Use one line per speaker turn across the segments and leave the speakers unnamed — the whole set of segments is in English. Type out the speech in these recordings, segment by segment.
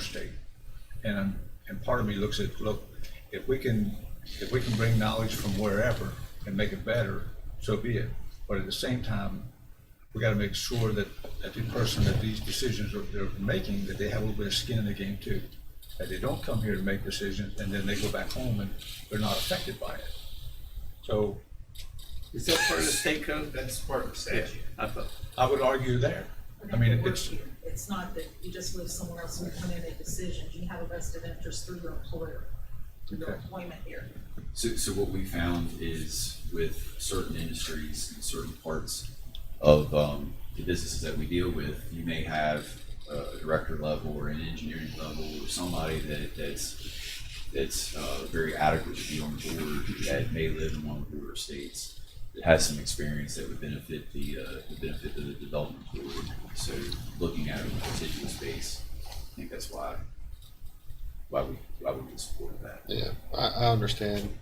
state. And, and part of me looks at, look, if we can, if we can bring knowledge from wherever and make it better, so be it. But at the same time, we gotta make sure that, that the person that these decisions are, they're making, that they have a little bit of skin in the game too. That they don't come here to make decisions and then they go back home and they're not affected by it. So
Is that part of the state code?
That's part of the statute.
I thought,
I would argue there. I mean, it's,
It's not that you just live somewhere else and you come in and make decisions, you have a vested interest through your employer, through your
Okay.
employment here.
So, so what we found is with certain industries and certain parts of, um, the businesses that we deal with, you may have a director level or an engineering level or somebody that, that's, that's, uh, very adequate to be on the board that may live in one of the border states that has some experience that would benefit the, uh, would benefit the development board. So looking at it in a particular space, I think that's why, why we, why we would support that.
Yeah, I, I understand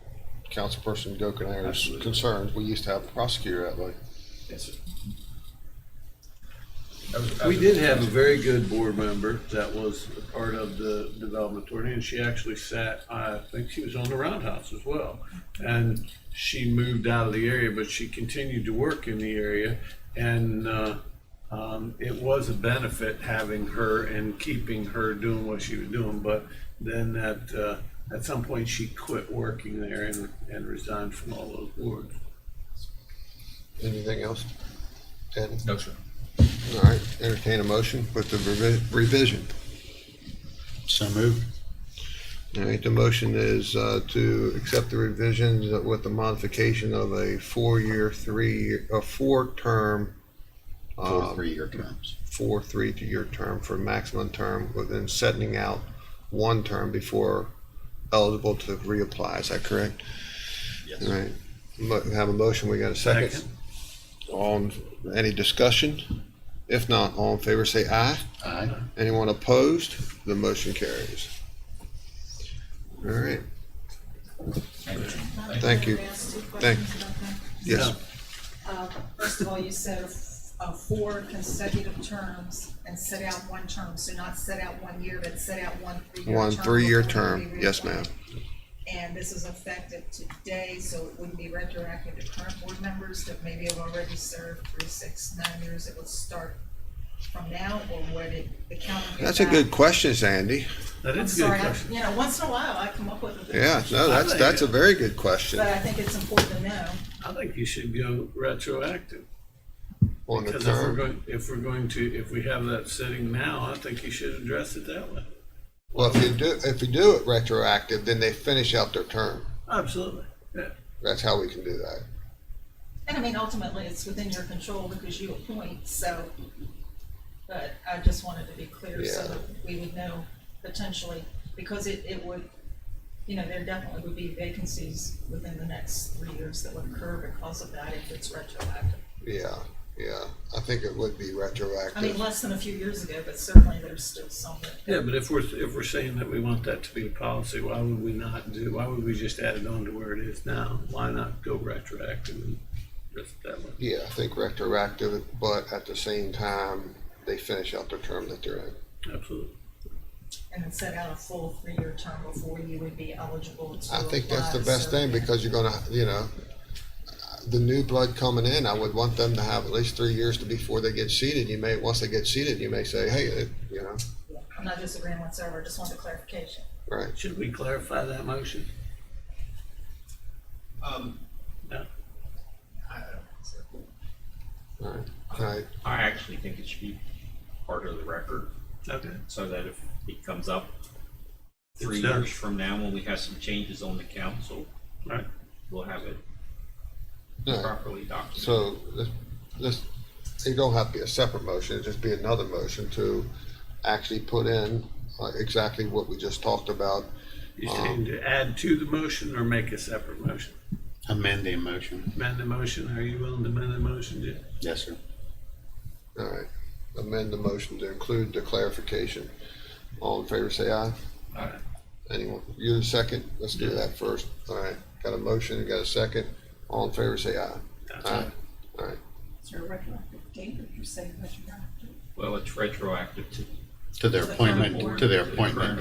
Councilperson Gokenaire's
Absolutely.
concerns. We used to have a prosecutor that way.
Yes, sir.
that was-
we did have a very good board member that was a part of the development authority, and she actually sat, I think she was on the roundhouse as well. And she moved out of the area, but she continued to work in the area, and, uh, um, it was a benefit having her and keeping her doing what she was doing, but then at, uh, at some point, she quit working there and, and resigned from all those boards.
Anything else? Ed?
No, sir.
All right, entertain a motion with the revi- revision.
So moved.
All right, the motion is uh, to accept the revisions with the modification of a four-year, three, a four-term,
Four
um,
three-year terms.
four, three-year term for maximum term within setting out one term before eligible to reapply. Is that correct?
Yes.
All right, Mo- have a motion, we got a second?
Second.
On, any discussion? If not, all in favor say aye.
Aye.
Anyone opposed? The motion carries. All right, Thank you.
Can I ask two
Thank-
questions about that?
yes,
Uh, First of all, you said of of four consecutive terms and set out one term, so not set out one year, but set out one three-year term.
one three-year
before they
term, yes,
reapply.
ma'am.
And this is effective today, so it wouldn't be retroactive to current board members that maybe have already served three, six, nine years. It would start from now, or would it, the calendar?
That's a good question, Sandy.
That
I'm
is a good
sorry, I-
question.
you know, once in a while, I come up with a good
Yeah,
question,
no, that's, that's a very good question
But I think it's important to know.
I think you should go retroactive.
on the
Because if we're
term.
going, if we're going to, if we have that sitting now, I think you should address it that way.
Well, if you do, if you do it retroactive, then they finish out their term.
Absolutely. Yeah,
That's how we can do that.
And I mean, ultimately, it's within your control because you appoint, so. But I just wanted to be clear so
Yeah.
that we would know potentially, because it, it would, you know, there definitely would be vacancies within the next three years that would occur because of that if it's retroactive.
Yeah, yeah. I think it would be
I mean,
retroactive.
less than a few years ago, but certainly there's still some that.
Yeah, but if we're, if we're saying that we want that to be a policy, why would we not do, why would we just add it on to where it is now? Why not go retroactive and address it that way?
Yeah, I think retroactive, but at the same time, they finish out their term that they're in.
Absolutely.
And then set out a full three-year term before you would be eligible to
I think that's the
apply,
best
so-
thing because you're gonna, you know, the new blood coming in, I would want them to have at least three years to before they get seated. You may, once they get seated, you may say, hey, it- you know,
Yeah, I'm not disagreeing whatsoever, I just wanted clarification.
right.
Should we clarify that motion?
Um,
No.
I don't think so.
All right. All right.
I actually think it should be part of the record,
Okay.
so that if it comes up three
It's done.
years from now, when we have some changes on the council,
Right.
we'll have it
All right.
properly documented.
So this- this, it don't have to be a separate motion, it'd just be another motion to actually put in uh, exactly what we just talked about. Um,
You saying to add to the motion or make a separate motion?
Amend the motion.
Amend the motion. Are you willing to amend the motion, Jim?
Yes, sir.
All right, amend the motion to include the clarification. All in favor, say aye.
All right.
Anyone, you the second? Let's do that first. All right, got a motion, got a second. All in favor, say aye.
That's
Aye.
right.
All right,
Is there a retroactive date if you're saying retroactive?
Well, it's retroactive to
to their
To the current
appointment,
board.
to their appointment